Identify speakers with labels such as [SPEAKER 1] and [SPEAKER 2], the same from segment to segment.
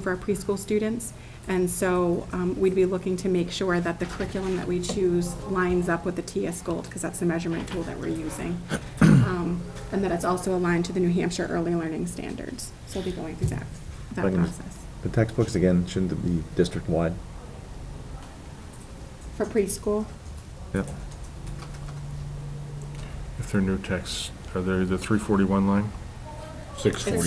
[SPEAKER 1] for our preschool students. And so um, we'd be looking to make sure that the curriculum that we choose lines up with the TS Gold, because that's the measurement tool that we're using. Um, And that it's also aligned to the New Hampshire Early Learning Standards. So we'll be going through that, that
[SPEAKER 2] Like in-
[SPEAKER 1] process
[SPEAKER 2] The textbooks, again, shouldn't it be district-wide?
[SPEAKER 1] for preschool.
[SPEAKER 2] Yep.
[SPEAKER 3] If they're new texts, are they the 341 line?
[SPEAKER 4] Six
[SPEAKER 1] It's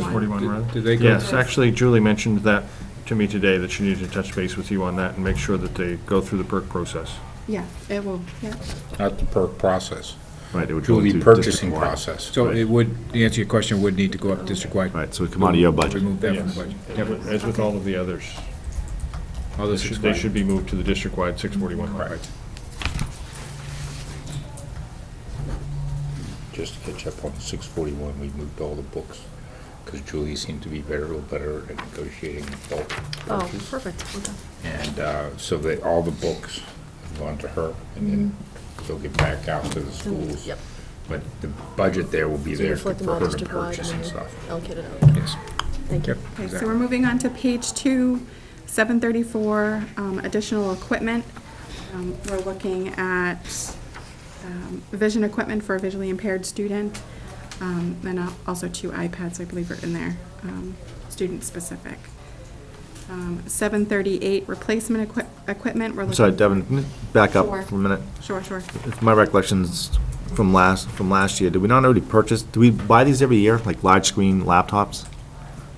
[SPEAKER 1] 6:41.
[SPEAKER 3] 6:41, rather?
[SPEAKER 4] Did- did they go-
[SPEAKER 3] Yes, actually, Julie mentioned that to me today, that she needed to touch base with you on that and make sure that they go through the perk process.
[SPEAKER 1] Yeah, it will, yeah.
[SPEAKER 4] Not the perk process,
[SPEAKER 5] Right, it would go
[SPEAKER 4] to the
[SPEAKER 5] into
[SPEAKER 4] purchasing
[SPEAKER 5] district-wide.
[SPEAKER 4] process.
[SPEAKER 6] So it would, to answer your question, would need to go up district-wide.
[SPEAKER 5] Right, so it would come out of your budget.
[SPEAKER 6] Remove that from the
[SPEAKER 3] Yes,
[SPEAKER 6] budget.
[SPEAKER 3] As with- as with all of the others.
[SPEAKER 4] Oh,
[SPEAKER 6] All
[SPEAKER 3] They
[SPEAKER 6] this
[SPEAKER 3] should-
[SPEAKER 6] is
[SPEAKER 3] They should be moved to the district-wide 641 line.
[SPEAKER 6] Correct.
[SPEAKER 4] Just to catch up on six forty-one, we moved all the books, because Julie seemed to be very, little better at negotiating bulk
[SPEAKER 7] Oh,
[SPEAKER 4] purchase.
[SPEAKER 7] perfect, okay.
[SPEAKER 4] And uh, so that, all the books have gone to her, and then they'll get back out to the schools.
[SPEAKER 7] Mm-hmm. Yep.
[SPEAKER 4] But the budget there will be
[SPEAKER 7] So you
[SPEAKER 4] there for
[SPEAKER 7] reflect them all
[SPEAKER 4] her to
[SPEAKER 7] district-wide
[SPEAKER 4] purchase
[SPEAKER 7] and
[SPEAKER 4] and
[SPEAKER 7] then
[SPEAKER 4] stuff.
[SPEAKER 7] allocate it out.
[SPEAKER 6] Yes.
[SPEAKER 7] Thank you.
[SPEAKER 1] Okay, so we're moving on to page two, 734, um, additional equipment. Um, We're looking at um, vision equipment for a visually impaired student, um, and al- also two iPads, I believe, are in there, um, student-specific. Um, 738, replacement equi- equipment, we're
[SPEAKER 5] I'm
[SPEAKER 1] looking...
[SPEAKER 5] Sorry, Devin, back up
[SPEAKER 1] Sure.
[SPEAKER 5] for a minute.
[SPEAKER 1] Sure, sure.
[SPEAKER 5] If my recollection's from last, from last year, did we not already purchase, do we buy these every year, like large-screen laptops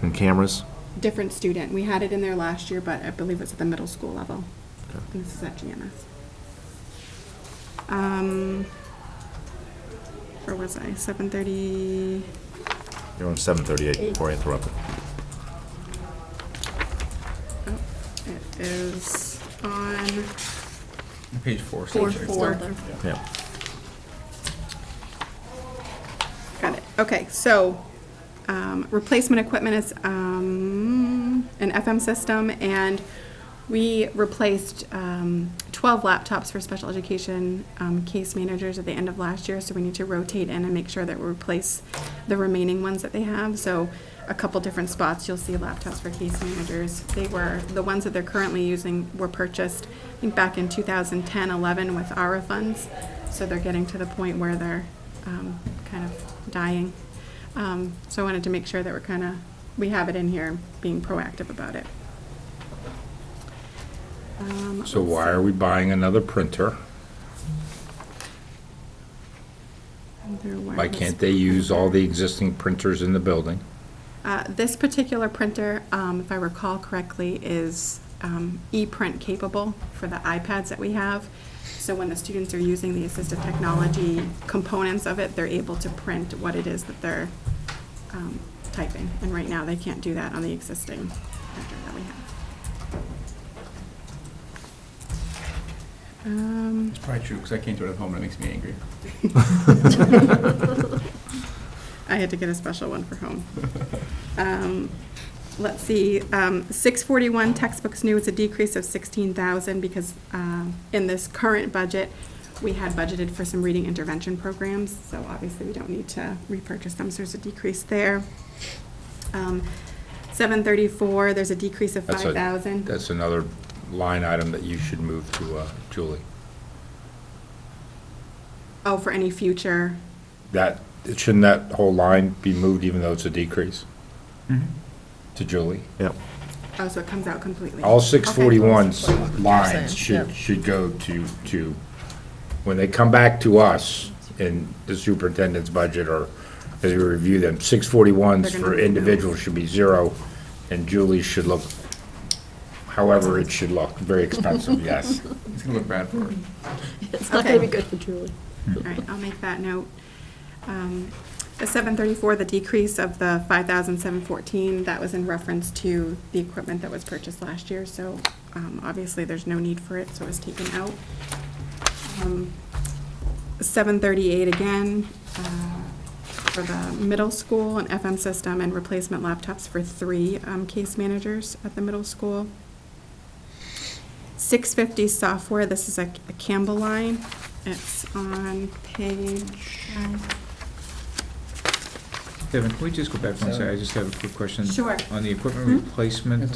[SPEAKER 5] and cameras?
[SPEAKER 1] Different student. We had it in there last year, but I believe it's at the middle school level. And this is at GMS. Um, where was I? Seven thirty,
[SPEAKER 5] You're on 738, before I interrupted.
[SPEAKER 1] oh, it is on
[SPEAKER 6] Page four.
[SPEAKER 1] four,
[SPEAKER 7] It's
[SPEAKER 1] four.
[SPEAKER 7] not there.
[SPEAKER 5] Yeah.
[SPEAKER 1] Got it. Okay, so, um, replacement equipment is, um, an FM system, and we replaced, um, twelve laptops for special education, um, case managers at the end of last year, so we need to rotate in and make sure that we replace the remaining ones that they have, so a couple different spots, you'll see laptops for case managers. They were, the ones that they're currently using were purchased, I think, back in 2010, 11 with ARA funds, so they're getting to the point where they're, um, kind of dying. Um, So I wanted to make sure that we're kind of, we have it in here, being proactive about it. Um,
[SPEAKER 4] So why are we buying another printer?
[SPEAKER 1] they're
[SPEAKER 4] Why
[SPEAKER 1] wireless.
[SPEAKER 4] can't they use all the existing printers in the building?
[SPEAKER 1] Uh, This particular printer, um, if I recall correctly, is um, e-print capable for the iPads that we have. So when the students are using the assistive technology components of it, they're able to print what it is that they're um, typing. And right now, they can't do that on the existing printer that we have. Um,
[SPEAKER 6] Probably true, because I can't do it at home, and it makes me angry.
[SPEAKER 1] Um. I had to get a special one for home. Um, Let's see, um, 641 textbooks new, it's a decrease of 16,000 because um, in this current budget, we had budgeted for some reading intervention programs, so obviously we don't need to repurchase them, so there's a decrease there. Um, 734, there's a decrease of
[SPEAKER 4] That's a-
[SPEAKER 1] 5,000.
[SPEAKER 4] That's another line item that you should move to uh, Julie.
[SPEAKER 1] Oh, for any future,
[SPEAKER 4] That, shouldn't that whole line be moved even though it's a decrease? To Julie?
[SPEAKER 5] Yep.
[SPEAKER 1] oh, so it comes out completely.
[SPEAKER 4] All
[SPEAKER 1] six
[SPEAKER 4] six
[SPEAKER 1] forty-one.
[SPEAKER 4] forty-one's lines
[SPEAKER 7] Same,
[SPEAKER 4] should,
[SPEAKER 7] yeah.
[SPEAKER 4] should go to, to, when they come back to us in the superintendent's budget or as we review them, six forty-ones
[SPEAKER 1] They're gonna
[SPEAKER 4] for
[SPEAKER 1] be
[SPEAKER 4] individuals should be zero, and Julie should look, however it should look, very expensive, yes.
[SPEAKER 6] It's going to look bad for her.
[SPEAKER 7] It's not gonna
[SPEAKER 1] Okay.
[SPEAKER 7] be good for Julie.
[SPEAKER 1] All right, I'll make that note. Um, The 734, the decrease of the 5,714, that was in reference to the equipment that was purchased last year, so um, obviously there's no need for it, so it was taken out. Um, 738 again, uh, for the middle school, an FM system and replacement laptops for three um, case managers at the middle school. 650 software, this is a a Campbell line. It's on page
[SPEAKER 8] Devin, can we just go back one second? I just have a quick question.
[SPEAKER 1] Sure.
[SPEAKER 8] On the equipment replacement,